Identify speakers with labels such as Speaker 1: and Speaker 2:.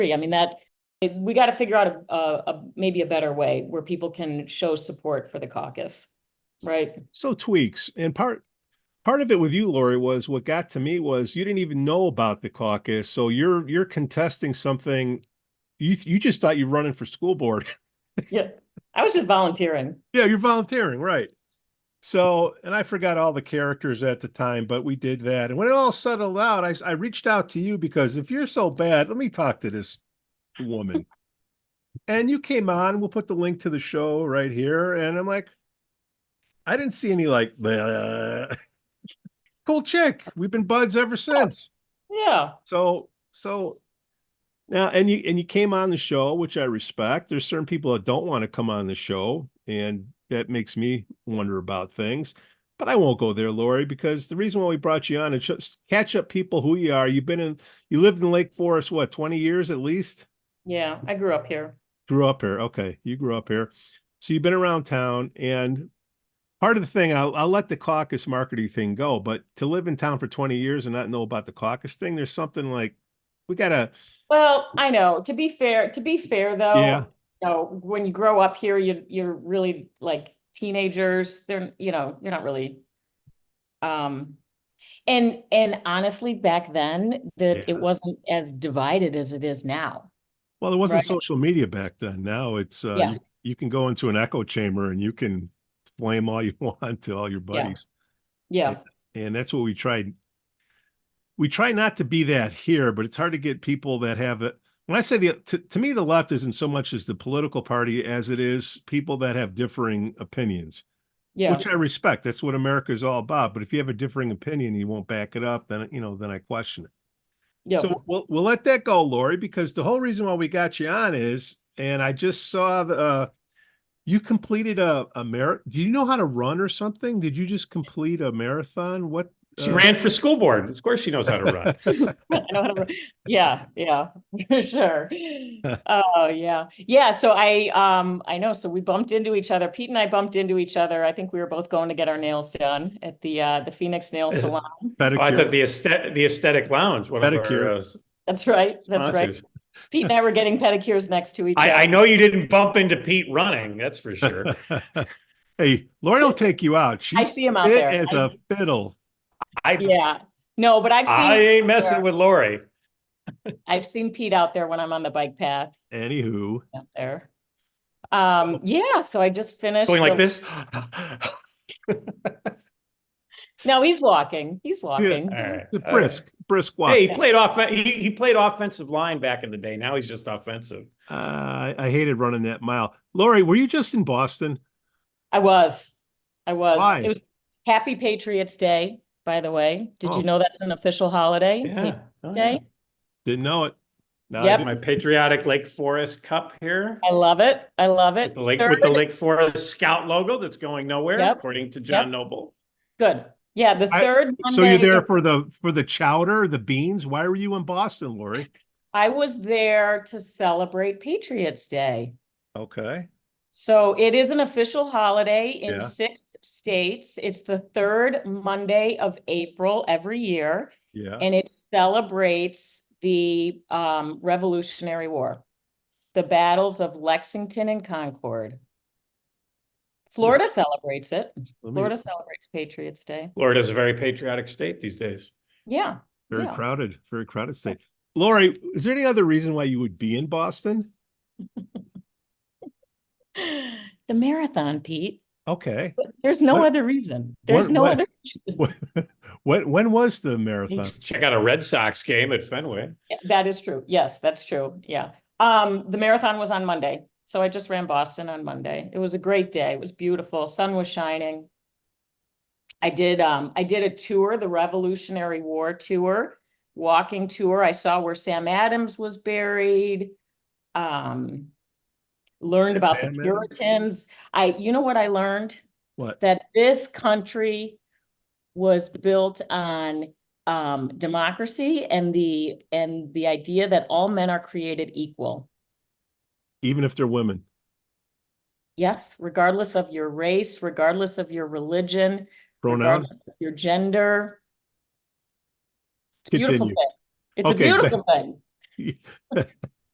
Speaker 1: free. I mean, that, it- we got to figure out a, a, a- maybe a better way where people can show support for the caucus, right?
Speaker 2: so tweaks and part part of it with you lori was what got to me was you didn't even know about the caucus so you're you're contesting something you you just thought you're running for school board
Speaker 1: Yeah, I was just volunteering.
Speaker 2: yeah you're volunteering right so and i forgot all the characters at the time but we did that and when it all settled out i, s- I reached out to you because if you're so bad let me talk to this woman and you came on we'll put the link to the show right here and i'm like i didn't see any like "Bleh." cool chick we've been buds ever since
Speaker 1: Yeah,
Speaker 2: so so now and you and you came on the show, which I respect. There's certain people that don't want to come on the show, and that makes me wonder about things. But I won't go there, Lori, because the reason why we brought you on is just catch up people who you are. You've been in you lived in Lake Forest, what, 20 years at least?
Speaker 1: yeah, I grew up here.
Speaker 2: Grew up here. Okay. You grew up here. So you've been around town and part of the thing, I'll, I'll let the caucus marketing thing go, but to live in town for 20 years and not know about the caucus thing, there's something like we gotta
Speaker 1: Well, I know, to be fair, to be fair though.
Speaker 2: Yeah.
Speaker 1: You know, when you grow up here, you, you're really like teenagers, they're, you know, you're not really. Um, and, and honestly, back then, that
Speaker 2: Yeah.
Speaker 1: it wasn't as divided as it is now.
Speaker 2: Well, there wasn't
Speaker 1: Right.
Speaker 2: social media back then. Now it's uh,
Speaker 1: Yeah.
Speaker 2: you, you can go into an echo chamber and you can flame all you want to all your
Speaker 1: Yeah.
Speaker 2: buddies,
Speaker 1: Yeah,
Speaker 2: and that's what we tried. We try not to be that here, but it's hard to get people that have it. When I say the to, to me, the left isn't so much as the political party as it is people that have differing opinions,
Speaker 1: yeah.
Speaker 2: which I respect. That's what America is all about. But if you have a differing opinion, you won't back it up. Then you know, then I question it.
Speaker 1: Yeah,
Speaker 2: So we'll we'll let that go, Lori, because the whole reason why we got you on is, and I just saw the uh, you completed a a mar. Do you know how to run or something? Did you just complete a marathon? What?
Speaker 3: She
Speaker 2: uh,
Speaker 3: ran for school board. Of course, she knows how to run. Oh,
Speaker 1: I know how to, re- yeah, yeah, for sure. Oh, yeah. Yeah, so I, um, I know, so we bumped into each other. Pete and I bumped into each other. I think we were both going to get our nails done at the, uh, the Phoenix Nail Salon.
Speaker 3: I
Speaker 2: pedicure.
Speaker 3: thought the aesthetic, the aesthetic lounge, one of
Speaker 2: Pedicure.
Speaker 3: our uh,
Speaker 1: That's right, that's right.
Speaker 3: sponsors.
Speaker 1: Pete and I were getting pedicures next to each
Speaker 3: I, I
Speaker 1: other.
Speaker 3: know you didn't bump into Pete running, that's for sure.
Speaker 2: hey, Lori will take you out.
Speaker 1: I
Speaker 2: She's
Speaker 1: see him out
Speaker 2: fit
Speaker 1: there.
Speaker 2: as
Speaker 1: I-
Speaker 2: a fiddle.
Speaker 3: I,
Speaker 1: Yeah, no, but I've
Speaker 3: I
Speaker 1: seen,
Speaker 3: ain't messing with Lori.
Speaker 1: I've seen Pete out there when I'm on the bike path
Speaker 2: Anywho,
Speaker 1: out there. Um, yeah, so I just finished.
Speaker 3: Going like
Speaker 1: the-
Speaker 3: this. All
Speaker 1: No, he's walking, he's walking.
Speaker 3: right.
Speaker 2: the
Speaker 3: all
Speaker 2: brisk, brisk
Speaker 3: right.
Speaker 2: walk.
Speaker 3: Uh, Hey, he played off, he, he played offensive line back in the day. Now he's just offensive.
Speaker 2: Uh, I- I hated running that mile. Lori, were you just in Boston?
Speaker 1: I was. I was.
Speaker 2: Why?
Speaker 1: It was Happy Patriots Day, by the way. Did
Speaker 2: Oh.
Speaker 1: you know that's an official holiday?
Speaker 3: Yeah. oh, yeah.
Speaker 1: Day.
Speaker 2: Didn't know it. Now I
Speaker 1: Yep.
Speaker 2: do.
Speaker 3: My patriotic Lake Forest Cup here.
Speaker 1: I love it. I love
Speaker 3: With
Speaker 1: it.
Speaker 3: the Lake, with the
Speaker 1: Third-
Speaker 3: Lake Forest Scout logo that's going nowhere,
Speaker 1: Yep.
Speaker 3: according to John Noble.
Speaker 1: Good. Yeah, the
Speaker 2: I-
Speaker 1: third
Speaker 2: So you're
Speaker 1: Monday-
Speaker 2: there for the for the chowder, the beans. Why were you in Boston, Lori?
Speaker 1: I was there to celebrate Patriots Day.
Speaker 2: Okay.
Speaker 1: So it is an official holiday in
Speaker 2: Yeah.
Speaker 1: six states. It's the third Monday of April every year,
Speaker 2: Yeah.
Speaker 1: and it celebrates the um, Revolutionary War, the battles of Lexington and Concord. Florida celebrates it.
Speaker 2: Let me-
Speaker 1: Florida celebrates Patriots Day.
Speaker 3: Florida's a very patriotic state these days.
Speaker 1: Yeah.
Speaker 2: very
Speaker 1: yeah.
Speaker 2: crowded, very crowded state. Lori, is there any other reason why you would be in Boston?
Speaker 1: The marathon, Pete.
Speaker 2: Okay.
Speaker 1: There's no
Speaker 2: What-
Speaker 1: other reason. There's
Speaker 2: what-
Speaker 1: no
Speaker 2: what-
Speaker 1: other reason.
Speaker 2: When when was the marathon?
Speaker 3: Check out a Red Sox game at Fenway.
Speaker 1: Yeah, That is true. Yes, that's true. Yeah. Um, the marathon was on Monday. So I just ran Boston on Monday. It was a great day. It was beautiful. Sun was shining. I did um I did a tour, the Revolutionary War tour, walking tour. I saw where Sam Adams was buried. Um learned about the
Speaker 2: Sam Adams?
Speaker 1: Puritans. I you know what I learned?
Speaker 2: What?
Speaker 1: that this country was built on um, democracy and the and the idea that all men are created equal.
Speaker 2: Even if they're women.
Speaker 1: Yes, regardless of your race, regardless of your religion,
Speaker 2: Pronoun.
Speaker 1: regardless of your gender. It's a beautiful
Speaker 2: Continue.
Speaker 1: thing. It's a
Speaker 2: Okay,
Speaker 1: beautiful thing.